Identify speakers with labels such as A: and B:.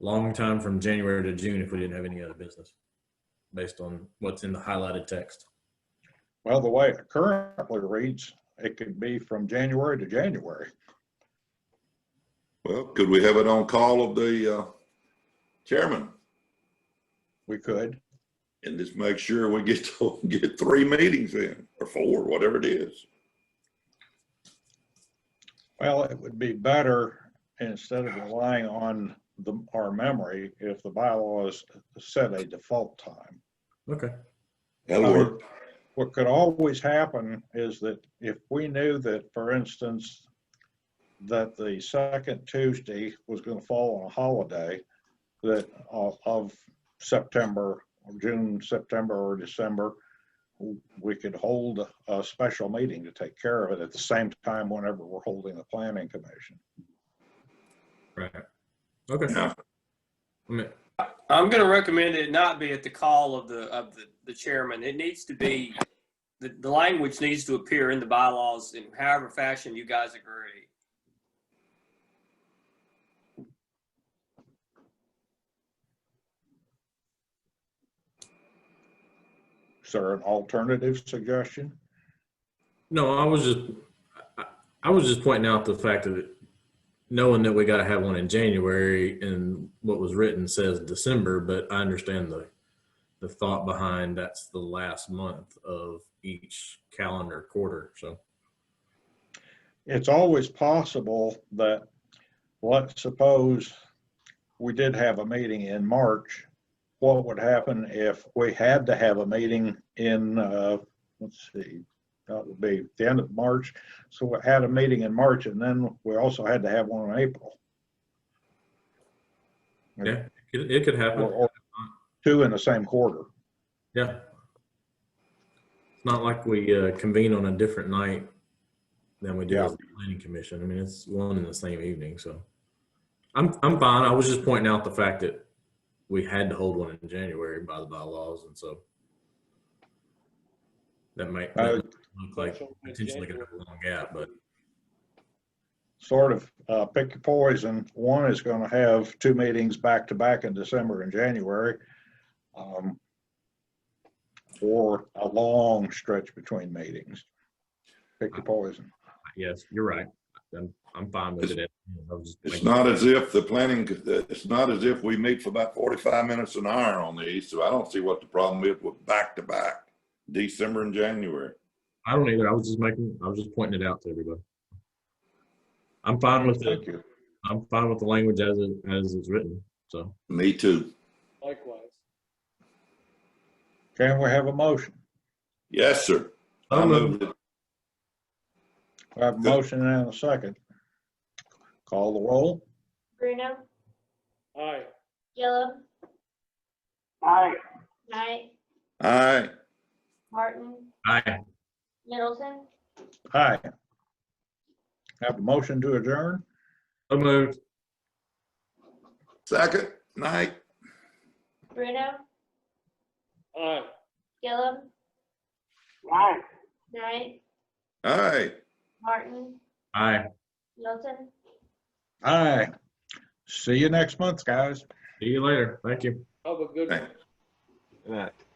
A: long time from January to June if we didn't have any other business, based on what's in the highlighted text.
B: Well, the way it currently reads, it could be from January to January.
C: Well, could we have it on call of the uh, chairman
B: We could.
C: and just make sure we get to get three meetings in or four, whatever it is?
B: Well, it would be better, instead of relying on the, our memory, if the bylaws set a default time.
A: Okay.
C: That'll work.
B: What could always happen is that if we knew that, for instance, that the second Tuesday was going to fall on a holiday, that of, of September, June, September, or December, we could hold a special meeting to take care of it at the same time whenever we're holding the planning commission.
A: Right. Okay.
C: Yeah.
A: I mean,
D: I'm going to recommend it not be at the call of the, of the, the chairman. It needs to be, the, the language needs to appear in the bylaws in however fashion you guys agree.
B: Is there an alternative suggestion?
A: No, I was just, I, I was just pointing out the fact that it- knowing that we got to have one in January and what was written says December, but I understand the, the thought behind that's the last month of each calendar quarter. So,
B: it's always possible that, let's suppose we did have a meeting in March. What would happen if we had to have a meeting in, uh, let's see, that would be the end of March. So we had a meeting in March and then we also had to have one in April.
A: yeah, it, it could
B: Or,
A: happen.
B: or two in the same quarter.
A: Yeah. It's not like we uh, convene on a different night than we do
B: Yeah.
A: as the planning commission. I mean, it's one and the same evening, so. I'm, I'm fine. I was just pointing out the fact that we had to hold one in January by the bylaws, and so. That might that
B: Uh,
A: might look like potentially gonna have a long gap, but
B: sort of uh, pick your poison. One is going to have two meetings back to back in December and January. um, Or a long stretch between meetings. Pick your poison.
A: yes, you're right. I'm, I'm fine with it. I was just
C: It's
A: making-
C: not as if the planning, it's not as if we meet for about forty-five minutes an hour on these, so I don't see what the problem is with back-to-back, December and January.
A: I don't either. I was just making, I was just pointing it out to everybody. I'm fine with it.
B: Thank you.
A: I'm fine with the language as it, as it's written. So
C: Me too.
E: Likewise.
B: Can we have a motion?
C: Yes, sir. I move it.
B: We have a motion and a second. Call the roll.
F: Bruno,
E: Aye.
F: Gillum,
D: Aye.
F: Knight,
C: Aye.
F: Martin,
A: Aye.
F: Middleton,
B: Aye. Have a motion to adjourn.
A: So moved.
C: Second, night.
F: Bruno,
E: Aye.
F: Gillum. Knight,
C: Aye.
F: Martin,
A: Aye.
F: Middleton.
B: Aye. See you next month, guys.
A: See you later. Thank you.
E: Have a good one.
C: Thank-